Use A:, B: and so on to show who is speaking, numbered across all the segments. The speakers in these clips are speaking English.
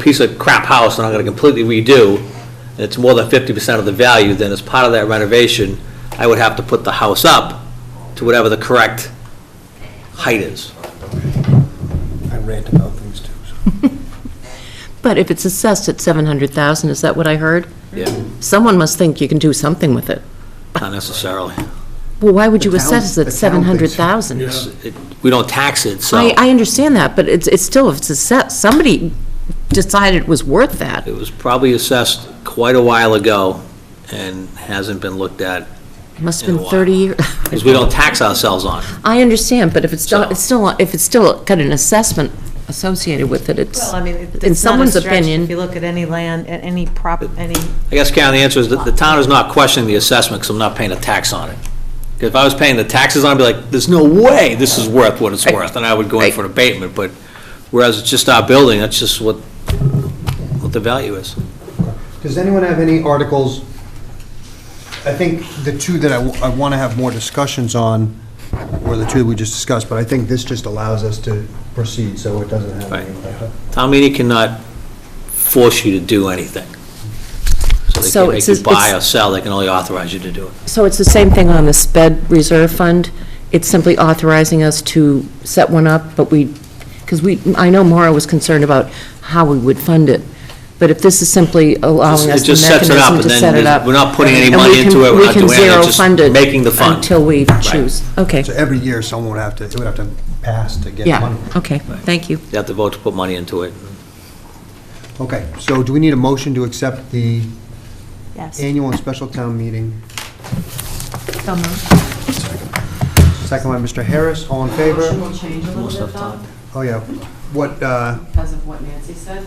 A: piece of crap house and I'm gonna completely redo, and it's more than fifty percent of the value, then as part of that renovation, I would have to put the house up to whatever the correct height is.
B: I rant about things too, so.
C: But if it's assessed at 700,000, is that what I heard?
A: Yeah,
C: Someone must think you can do something with it.
A: not necessarily.
C: Well, why would you
B: The town-
C: assess
B: the
C: it at
B: town thinks-
C: 700,000?
A: It's- it- We don't tax it, so
C: I, I understand that, but it's, it's still, if it's assessed, somebody decided it was worth that.
A: it was probably assessed quite a while ago and hasn't been looked at,
C: Must've been
A: Yeah, wow.
C: 30 years.
A: because we don't tax ourselves on it.
C: I understand, but if it's,
A: So-
C: not, it's still, if it's still got an assessment associated with it, it's,
D: Well, I mean,
C: in
D: it- it's not a
C: someone's
D: stretch
C: opinion.
D: if you look at any land, at any prop, any,
A: I guess, Karen, the answer is that the town is not questioning the assessment because I'm not paying a tax on it. 'Cause If I was paying the taxes on it, I'd be like, there's no way this is worth what it's worth, and I would go in for an abatement, but whereas it's just our building, that's just what, what the value is.
B: Does anyone have any articles? I think the two that I, want to have more discussions on were the two we just discussed, but I think this just allows us to proceed, so it doesn't have any.
A: Town meeting cannot force you to do anything. So
C: So
A: they
C: it's
A: can't make
C: just-
A: you buy or
C: it's-
A: sell, they can only authorize you to do it.
C: So it's the same thing on the sped reserve fund? It's simply authorizing us to set one up, but we, because we, I know Maura was concerned about how we would fund it, but if this is simply allowing
A: It
C: us the
A: just sets it up,
C: mechanism
A: and
C: to
A: then
C: set it
A: there's-
C: up.
A: we're not putting any
C: and we
A: money
C: can-
A: into it, we're
C: we
A: not
C: can
A: doing anything,
C: zero
A: just
C: fund it
A: making the fund.
C: Until we choose. Okay,
B: So every year, someone would have to, it would have to pass to get money.
C: yeah, okay, thank you.
A: You have to vote to put money into it.
B: Okay, so do we need a motion to accept the
D: yes.
B: annual and special town meeting?
D: So moved.
B: Second by Mr. Harris, all in favor?
E: will change a
A: Most
E: little
A: of
E: bit
A: the
E: though,
A: time.
B: Oh, yeah. What, uh,
E: because of what Nancy said.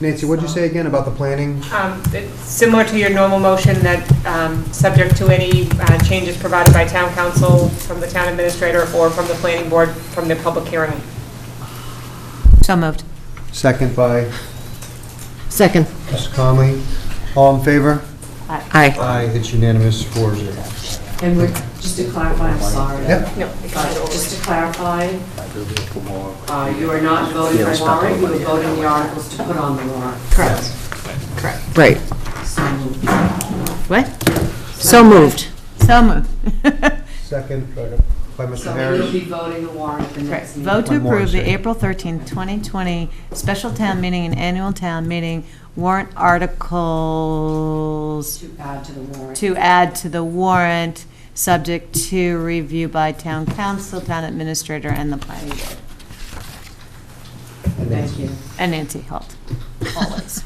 B: Nancy, what'd you say again about the planning?
F: Um, it's Similar to your normal motion that, um, subject to any uh, changes provided by town council, from the town administrator, or from the planning board, from the public hearing.
D: So moved.
B: Second by
C: Second,
B: Mr. Conley, all in favor?
C: aye.
B: Aye, it's unanimous, four zero.
E: And we're, just to clarify, I'm sorry.
B: Yep.
F: No, it got it
E: Uh,
F: over.
E: Just to clarify, uh, you are not voting for warrant, you are voting the articles to put on the warrant.
D: Correct.
C: Right,
E: So moved.
D: What?
C: so moved.
D: So moved.
B: Second by Mr.
E: So we'll be
B: Harris.
E: voting the warrant at the next meeting.
D: Vote to
B: One more,
D: approve the
B: sorry.
D: April 13, 2020 special town meeting and annual town meeting warrant articles
E: To add to the warrant.
D: to add to the warrant, subject to review by town council, town administrator, and the planning board.
E: Thank you.
D: And Nancy Holt, always.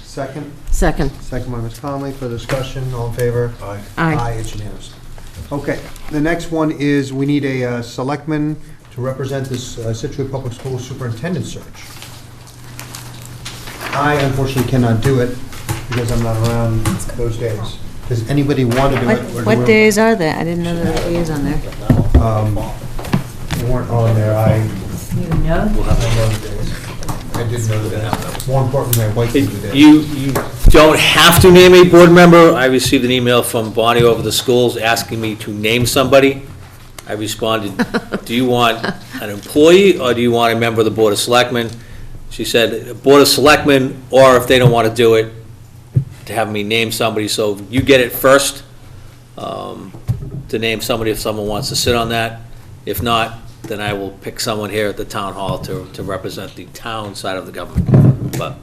B: Second,
C: Second,
B: second by Ms. Conley for discussion, all in favor? Aye.
C: Aye.
B: Aye, it's unanimous. Okay, the next one is, we need a uh, selectman to represent this uh, Situate Public School Superintendent search. I unfortunately cannot do it because I'm not around those days. Does anybody want to do it? or do we-
D: What days are they? I didn't know there were days on there.
B: Um, They weren't on there, I
D: You know?
B: I did know that. More importantly, my wife knew that.
A: You, you don't have to name a board member. I received an email from Bonnie over the schools asking me to name somebody. I responded, do you want an employee or do you want a member of the Board of Selectmen? She said, Board of Selectmen, or if they don't want to do it, to have me name somebody. So you get it first, um, to name somebody if someone wants to sit on that. If not, then I will pick someone here at the town hall to, to represent the town side of the government. But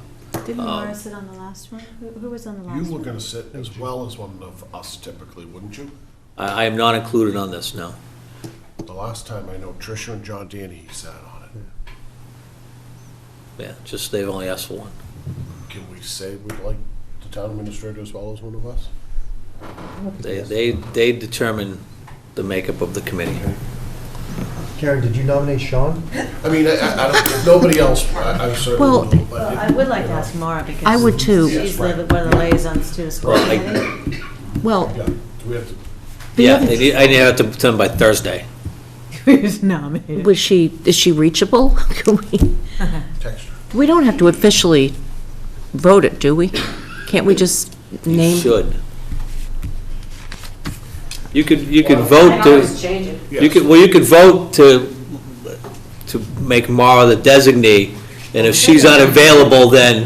D: Didn't
A: Laura
D: sit on the last one? Who was on the
G: You were gonna sit as well as one of us typically, wouldn't you?
A: I, I am not included on this, no.
G: The last time I know Tricia and John Danny sat on it.
A: Yeah, just, they've only asked for one.
G: Can we say we'd like the town administrator as well as one of us?
A: They, they, they determine the makeup of the committee.
B: Karen, did you nominate Sean?
G: I mean, I, I I don't, nobody else, I I
C: Well,
G: certainly don't, but.
D: Well, uh,
G: if-
D: I would like to ask Mara because.
C: I would too.
D: She's the- one of the liaisons to the school
A: Well, I-
D: committee.
C: well,
G: Yeah, do we have to,
A: Yeah, they need, I need to have to them by Thursday.
D: Who's nominated?
C: was she, is she reachable? Can we?
G: text her.
C: We don't have to officially vote it, do we? Can't we just
A: You
C: name?
A: should. You could, you could
E: I
A: vote
E: always
A: to,
E: change it.
A: you could, well, you could vote to, to make Mara the designee, and if she's unavailable, then